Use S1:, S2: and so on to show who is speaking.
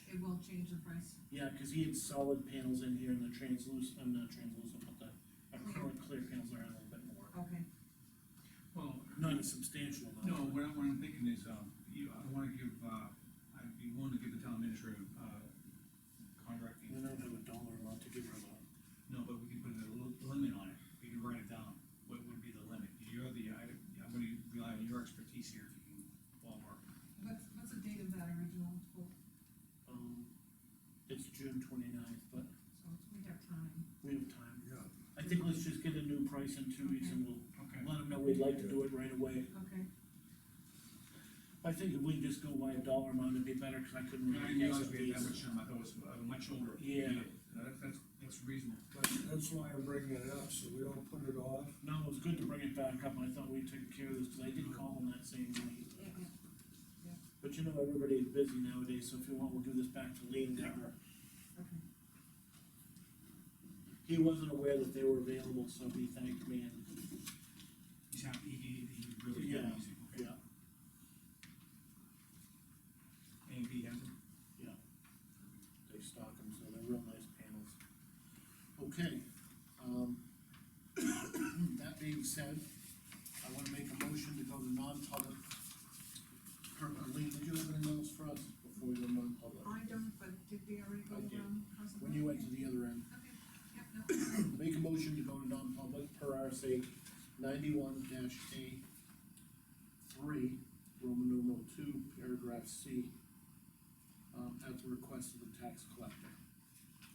S1: I'll change the price.
S2: Yeah, cause he had solid panels in here and the translucent, I'm not translucent, but the, uh, current clear panels are a little bit more,
S1: Okay,
S3: Well,
S2: not a substantial
S3: no,
S2: amount.
S3: what I- what I'm thinking is, um, you, I wanna give, uh, I'd be willing to give the town administrator, uh,
S2: We
S3: contracting.
S2: don't have a dollar amount to give her though.
S3: No, but we can put a li- limit on it, we can write it down, what would be the limit? You're the, I, I'm gonna rely on your expertise here, if you can ballpark.
S1: what's, what's the date of that original quote?
S2: Um, it's June 29th, but
S1: So we have time.
S2: we have time.
S4: Yeah.
S2: I think let's just get a new price in two weeks and we'll
S3: Okay.
S2: let them know we'd like to do it right away.
S1: Okay,
S2: I think if we just go by a dollar amount, it'd be better, cause I couldn't
S3: I
S2: really
S3: didn't
S2: guess
S3: realize
S2: the
S3: we had that
S2: fees.
S3: much, time. I thought it was uh, much older.
S2: Yeah.
S3: That's, that's, that's reasonable.
S4: But that's why I'm bringing it up, so we don't put it off.
S2: No, it was good to bring it back up, I thought we'd taken care of this, cause I
S3: Mm-hmm.
S2: did call them that same night.
S1: yeah, yeah.
S2: But you know, everybody's busy nowadays, so if you want, we'll give this back to Lean Decker.
S1: okay.
S2: He wasn't aware that they were available, so he thanked me and,
S3: He's happy, he, he really did
S2: Yeah.
S3: amazing, okay?
S2: yeah,
S3: A and B has it?
S2: they stock them, so they're real nice panels. Okay, um, that being said, I wanna make a motion to go to non-public. Per- uh, Lean, did you have anything else for us before we go to non-public?
S1: I don't, but did we already go
S2: I did.
S1: around? House of
S2: When you went
S1: Blues?
S2: to the other end,
S1: Okay, yep, no,
S2: make a motion to go to non-public per RSA ninety-one dash A three, Roman numeral two, paragraph C, um, at the request of the tax collector.